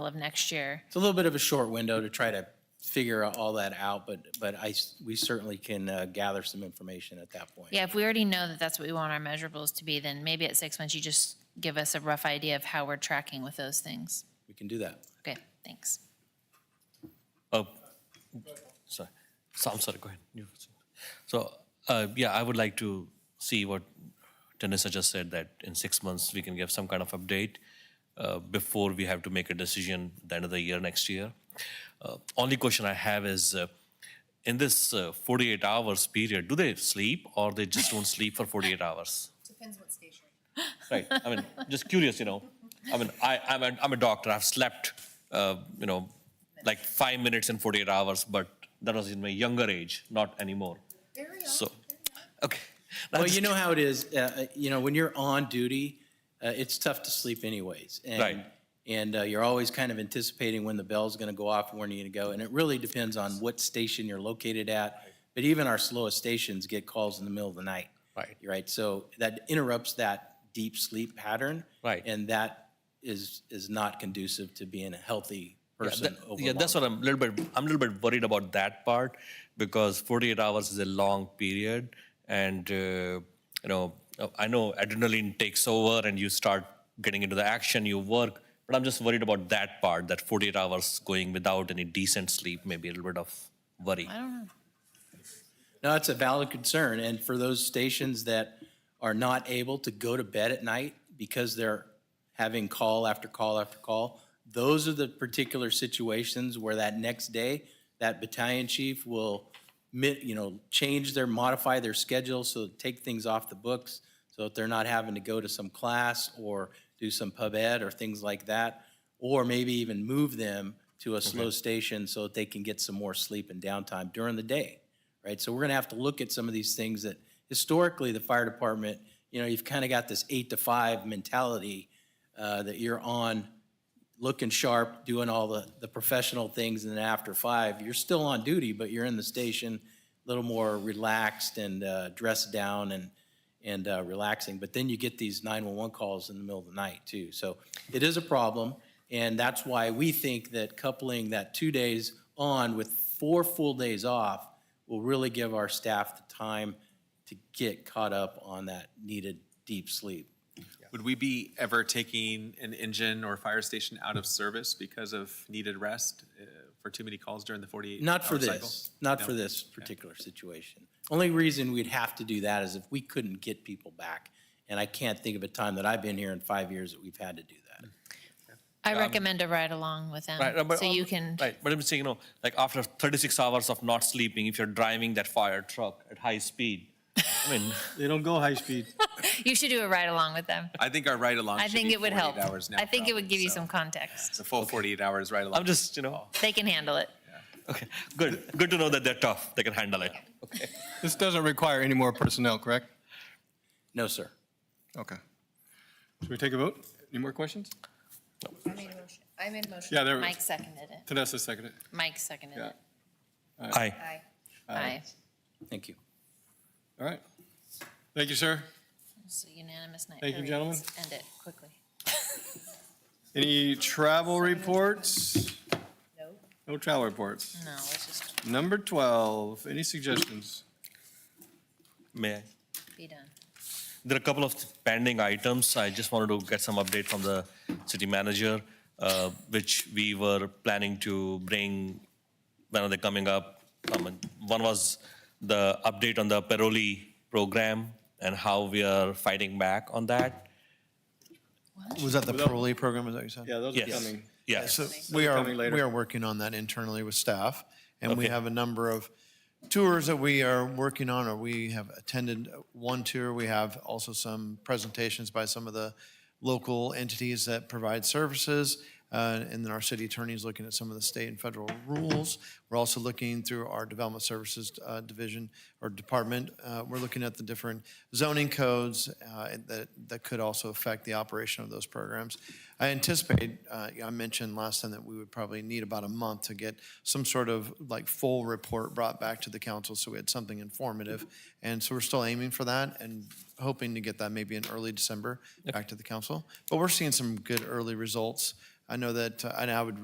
of next year. It's a little bit of a short window to try to figure all that out, but, but I, s- we certainly can uh, gather some information at that point. Yeah, if we already know that that's what we want our measurables to be, then maybe at six months, you just give us a rough idea of how we're tracking with those things. We can do that. Okay, thanks. Oh, sorry. So I'm sorry, go ahead. You- So, uh, yeah, I would like to see what Tanissa just said, that in six months, we can give some kind of update uh, before we have to make a decision at the end of the year next year. Uh, Only question I have is, uh, in this uh, 48 hours period, do they sleep or they just don't sleep for 48 hours? Depends what station. Right. I mean, just curious, you know. I mean, I, I'm, a, I'm a doctor. I've slept, uh, you know, like five minutes in 48 hours, but that was in my younger age, not anymore. Very So, often. okay. Well, you know how it is, uh, uh, you know, when you're on duty, uh, it's tough to sleep anyways. and- Right. And uh, you're always kind of anticipating when the bell's going to go off and when you're going to go. And it really depends on what station you're located at. But even our slowest stations get calls in the middle of the night. Right. Right, so that interrupts that deep sleep pattern. Right. And that is, is not conducive to being a healthy Yeah, person that- over yeah, that's long- what I'm a little bit. I'm a little bit worried about that part because 48 hours is a long period, and uh, you know, I know adrenaline takes over and you start getting into the action, you work. But I'm just worried about that part. That 48 hours going without any decent sleep, maybe a little bit of worry. I don't know. No, it's a valid concern, and for those stations that are not able to go to bed at night because they're having call after call after call, those are the particular situations where that next day, that battalion chief will, mi- you know, change their, modify their schedule, so take things off the books, so that they're not having to go to some class or do some pub ed or things like that, or maybe even move them to a slow station so that they can get some more sleep and downtime during the day right? So we're going to have to look at some of these things that historically the fire department, you know, you've kind of got this eight to five mentality uh, that you're on, looking sharp, doing all the, the professional things, and then after five, you're still on duty, but you're in the station, a little more relaxed and uh, dressed down and, and uh, relaxing. But then you get these 911 calls in the middle of the night too. So it is a problem, and that's why we think that coupling that two days on with four full days off will really give our staff the time to get caught up on that needed deep sleep. Would we be ever taking an engine or fire station out of service because of needed rest uh, for too many calls during the 48 Not for hour cycle? this, not for No. this particular situation. Only reason we'd have to do that is if we couldn't get people back. And I can't think of a time that I've been here in five years that we've had to do that. Mm. I recommend a ride along with them, Right, uh, but, so you um, can, Right, but I'm saying, you know, like after 36 hours of not sleeping, if you're driving that fire truck at high speed, I mean, They don't go high speed. you should do a ride along with them. I think our ride-along I should think be it would 48 help. hours now, I think it would probably, give you so some context. The full 48 hours ride-along. I'm just, you know, They can handle it. okay, good, good to know that they're tough. They can handle it. This doesn't require any more personnel, correct? No, sir. Okay. Should we take a vote? Any more questions? I made a motion. I made a motion. Yeah, there we Mike seconded it. Tanessa seconded it. Mike seconded Yeah. it. Aye. Aye. Aye. Thank you. All right. Thank you, sir. It's a unanimous night. Thank you, Hurry, gentlemen. let's End it quickly. Any travel reports? No. No travel reports. No, let's just Number 12, any suggestions? May I? be done. There are a couple of pending items. I just wanted to get some update from the city manager, uh, which we were planning to bring, when are they coming up? Um, One was the update on the Peroli program and how we are fighting back on that. Was that the parolee program, is that what you said? Yeah, those are Yes. coming. Yes. So we are, coming later. we are working on that internally with staff, and we Okay. have a number of tours that we are working on, or we have attended one tour. We have also some presentations by some of the local entities that provide services, uh, and then our city attorney is looking at some of the state and federal rules. We're also looking through our development services uh, division or department. Uh, We're looking at the different zoning codes uh, and that, that could also affect the operation of those programs. I anticipate, uh, I mentioned last time that we would probably need about a month to get some sort of like full report brought back to the council, so we had something informative. And so we're still aiming for that and hoping to get that maybe in early December back to the council. But we're seeing some good early results. Uh, I know that, uh, and I would